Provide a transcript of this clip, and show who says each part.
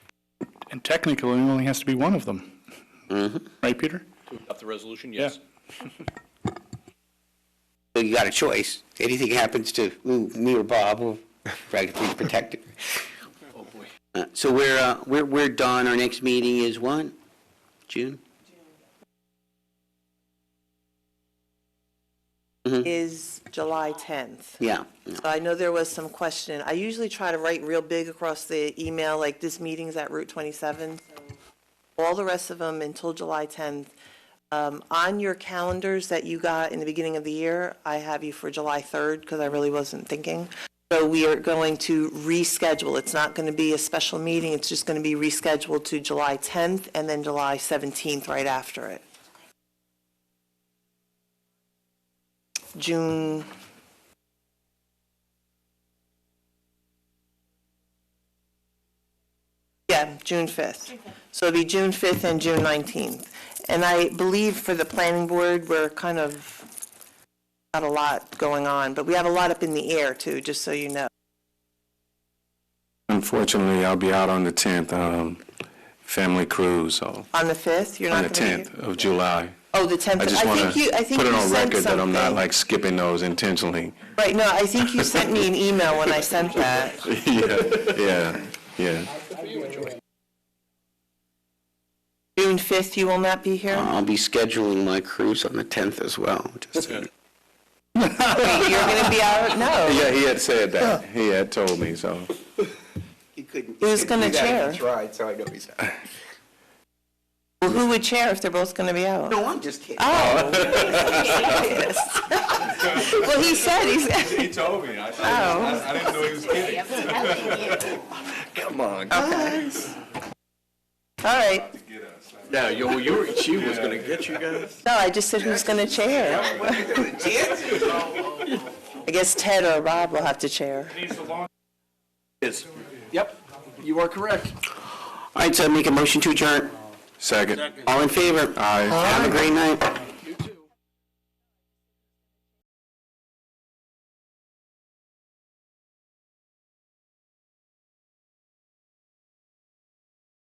Speaker 1: And technically, it only has to be one of them. Right, Peter?
Speaker 2: Adopt the resolution,
Speaker 1: Yeah.
Speaker 2: yes.
Speaker 3: So you got a choice. Anything happens to ooh, me or Bob, we'll practically protect it.
Speaker 2: Oh, boy.
Speaker 3: Uh, So we're, uh, we're, we're done. Our next meeting is what? June?
Speaker 4: is July 10th.
Speaker 3: Yeah. yeah.
Speaker 4: So I know there was some question. I usually try to write real big across the email, like this meeting's at Route 27. So All the rest of them until July 10th. Um, On your calendars that you got in the beginning of the year, I have you for July 3rd because I really wasn't thinking. So we are going to reschedule. It's not going to be a special meeting. It's just going to be rescheduled to July 10th and then July 17th right after it. June Yeah, June 5th. So it'll be June 5th and June 19th. And I believe for the planning board, we're kind of, not a lot going on, but we have a lot up in the air too, just so you know.
Speaker 5: Unfortunately, I'll be out on the 10th, um, family cruise, so,
Speaker 4: On the 5th, you're
Speaker 5: on the
Speaker 4: not going to
Speaker 5: 10th of July.
Speaker 4: Oh, the 10th.
Speaker 5: I just want
Speaker 4: think you- I
Speaker 5: to
Speaker 4: think
Speaker 5: put it
Speaker 4: you
Speaker 5: on
Speaker 4: sent
Speaker 5: record that I'm not
Speaker 4: something.
Speaker 5: like skipping those intentionally.
Speaker 4: Right, no, I think you sent me an email when I sent that.
Speaker 5: Yeah, yeah, yeah.
Speaker 4: June 5th, you will not be here?
Speaker 5: Uh-huh.
Speaker 3: I'll be scheduling my cruise on the 10th as well. Just
Speaker 4: Wait, You're going to be out? No.
Speaker 5: Yeah, he had said that, he had told me, so.
Speaker 3: He couldn't.
Speaker 4: Who's gonna chair?
Speaker 3: Right, so I know he's out.
Speaker 4: Well, who would chair if they're both going to be out?
Speaker 3: No, I'm just kidding.
Speaker 4: Oh. Yes. Well, he said, he's,
Speaker 5: He told me, I,
Speaker 4: oh.
Speaker 5: didn't know he was kidding.
Speaker 3: Come on.
Speaker 4: All right.
Speaker 2: Now, you, you, were- she was gonna get you guys.
Speaker 4: No, I just said who's going to chair. I guess Ted or Rob will have to chair.
Speaker 2: Yes. Yep, you are correct.
Speaker 3: All right, so make a motion to adjourn.
Speaker 5: Second.
Speaker 3: All in favor?
Speaker 5: Aye.
Speaker 3: Have a great night.